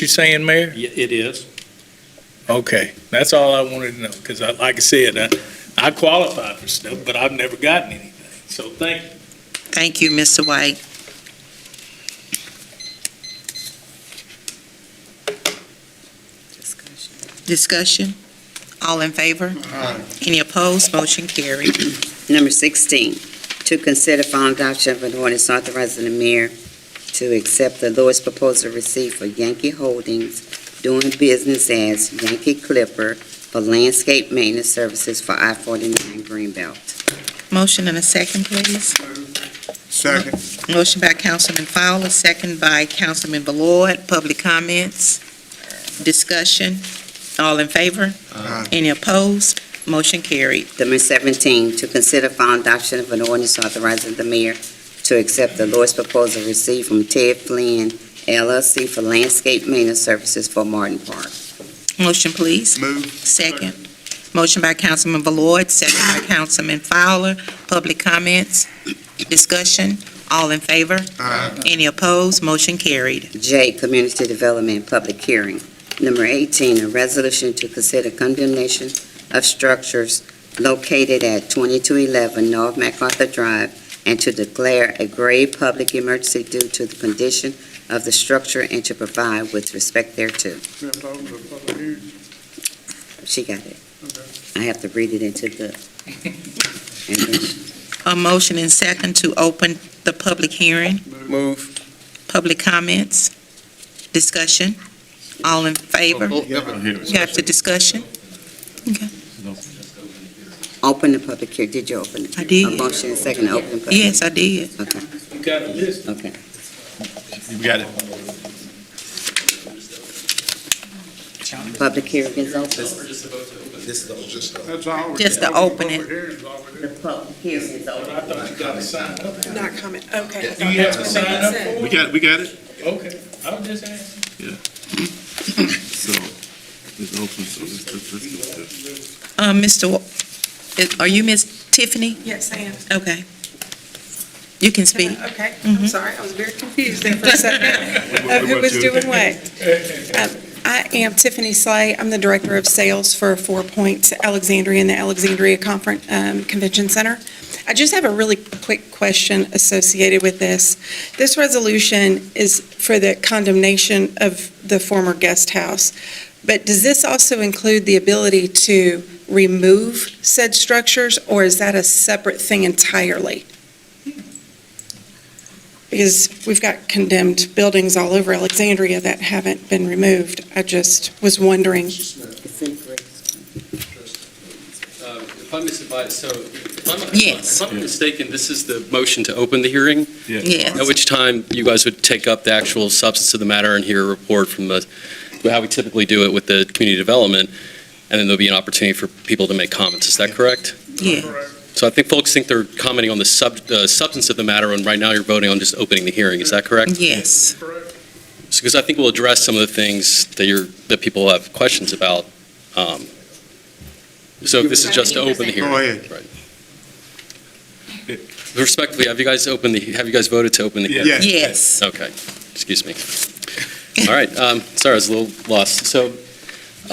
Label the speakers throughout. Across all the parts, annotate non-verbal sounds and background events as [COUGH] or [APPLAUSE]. Speaker 1: you saying, Mayor?
Speaker 2: Y- It is.
Speaker 1: Okay, that's all I wanted to know, because I, like I said, I, I qualify for stuff, but I've never gotten anything, so thank you.
Speaker 3: Thank you, Mr. White. Discussion? All in favor? Any opposed? Motion carried.
Speaker 4: Number 16, to consider final adoption of an ordinance authorizing the mayor to accept the lowest proposal received for Yankee Holdings doing business as Yankee Clipper for landscape maintenance services for I-49 Greenbelt.
Speaker 3: Motion and a second, please.
Speaker 5: Second.
Speaker 3: Motion by Councilman Fowler, second by Councilman Ballard. Public comments? Discussion? All in favor?
Speaker 5: Aye.
Speaker 3: Any opposed? Motion carried.
Speaker 4: Number 17, to consider final adoption of an ordinance authorizing the mayor to accept the lowest proposal received from Ted Flynn LLC for landscape maintenance services for Martin Park.
Speaker 3: Motion, please.
Speaker 5: Move.
Speaker 3: Second. Motion by Councilman Ballard, second [COUGHS] by Councilman Fowler. Public comments? Discussion? All in favor?
Speaker 5: Aye.
Speaker 3: Any opposed? Motion carried.
Speaker 4: J, Community Development Public Hearing. Number 18, a resolution to consider condemnation of structures located at 2211 North MacArthur Drive and to declare a grave public emergency due to the condition of the structure and to provide with respect thereto. She got it. I have to read it into the... and then she-
Speaker 3: A motion and second to open the public hearing.
Speaker 5: Move.
Speaker 3: Public comments? Discussion? All in favor? You have the discussion?
Speaker 4: Open the public hearing. Did you open it?
Speaker 3: I did.
Speaker 4: A motion and second to open the public?
Speaker 3: Yes, I did.
Speaker 4: Okay,
Speaker 1: You got a list?
Speaker 4: okay.
Speaker 6: You got it.
Speaker 4: Public hearing is open.
Speaker 5: That's all.
Speaker 3: Just to open it.
Speaker 4: The public hearing is open.
Speaker 1: I thought you got to sign up.
Speaker 7: Not coming, okay.
Speaker 1: Do you have to sign up for
Speaker 6: We
Speaker 1: it?
Speaker 6: got, we got it?
Speaker 1: Okay, I was just asking.
Speaker 6: So, it's open, so let's, let's, let's do it.
Speaker 3: Um, Mr., Wa- are you Miss Tiffany?
Speaker 7: Yes, I am.
Speaker 3: Okay. You can speak.
Speaker 7: Okay, I'm sorry, I was very confused there for a [LAUGHS] second of who was doing what. Um, I am Tiffany Slay, I'm the Director of Sales for Four Points Alexandria and the Alexandria Conference, um, Convention Center. I just have a really quick question associated with this. This resolution is for the condemnation of the former guest house, but does this also include the ability to remove said structures, or is that a separate thing entirely? because we've got condemned buildings all over Alexandria that haven't been removed. I just was wondering.
Speaker 4: It's in green.
Speaker 8: Uh, If I misadvise, so if I'm-
Speaker 3: Yes.
Speaker 8: if I'm mistaken, this is the motion to open the hearing,
Speaker 3: Yes.
Speaker 8: at which time you guys would take up the actual substance of the matter and hear a report from the, how we typically do it with the community development, and then there'll be an opportunity for people to make comments. Is that correct?
Speaker 3: Yeah.
Speaker 8: So I think folks think they're commenting on the sub- uh, substance of the matter, and right now you're voting on just opening the hearing. Is that correct?
Speaker 3: Yes.
Speaker 8: Because I think we'll address some of the things that you're, that people have questions about. Um, So if this is just to open the hearing.
Speaker 5: Go ahead.
Speaker 8: Right. Respectfully, have you guys opened the, have you guys voted to open the hearing?
Speaker 5: Yes.
Speaker 3: Yes.
Speaker 8: Okay, excuse me. All right, um, sorry, I was a little lost. So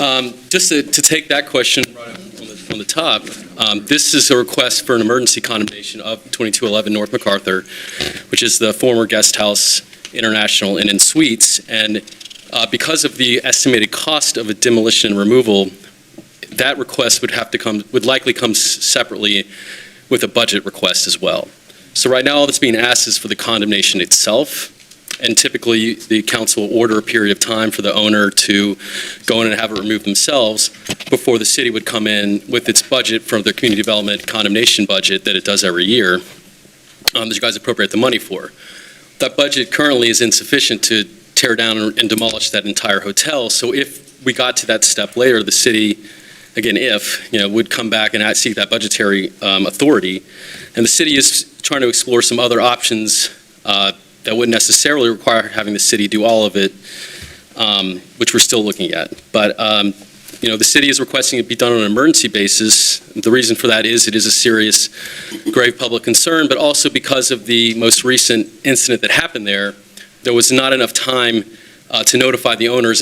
Speaker 8: um, just to to take that question right up from the- from the top, um, this is a request for an emergency condemnation of 2211 North MacArthur, which is the former Guest House International Inn and Suites. And uh, because of the estimated cost of a demolition and removal, that request would have to come, would likely come s- separately with a budget request as well. So right now, all that's being asked is for the condemnation itself, and typically, the council will order a period of time for the owner to go in and have it removed themselves before the city would come in with its budget from their community development condemnation budget that it does every year, um, that you guys appropriate the money for. That budget currently is insufficient to tear down and demolish that entire hotel, so if we got to that step later, the city, again, if, you know, would come back and seek that budgetary um, authority, and the city is trying to explore some other options uh, that wouldn't necessarily require having the city do all of it, um, which we're still looking at. But, um, you know, the city is requesting it be done on an emergency basis. The reason for that is it is a serious, grave public concern, but also because of the most recent incident that happened there, there was not enough time uh, uh, to notify the owners and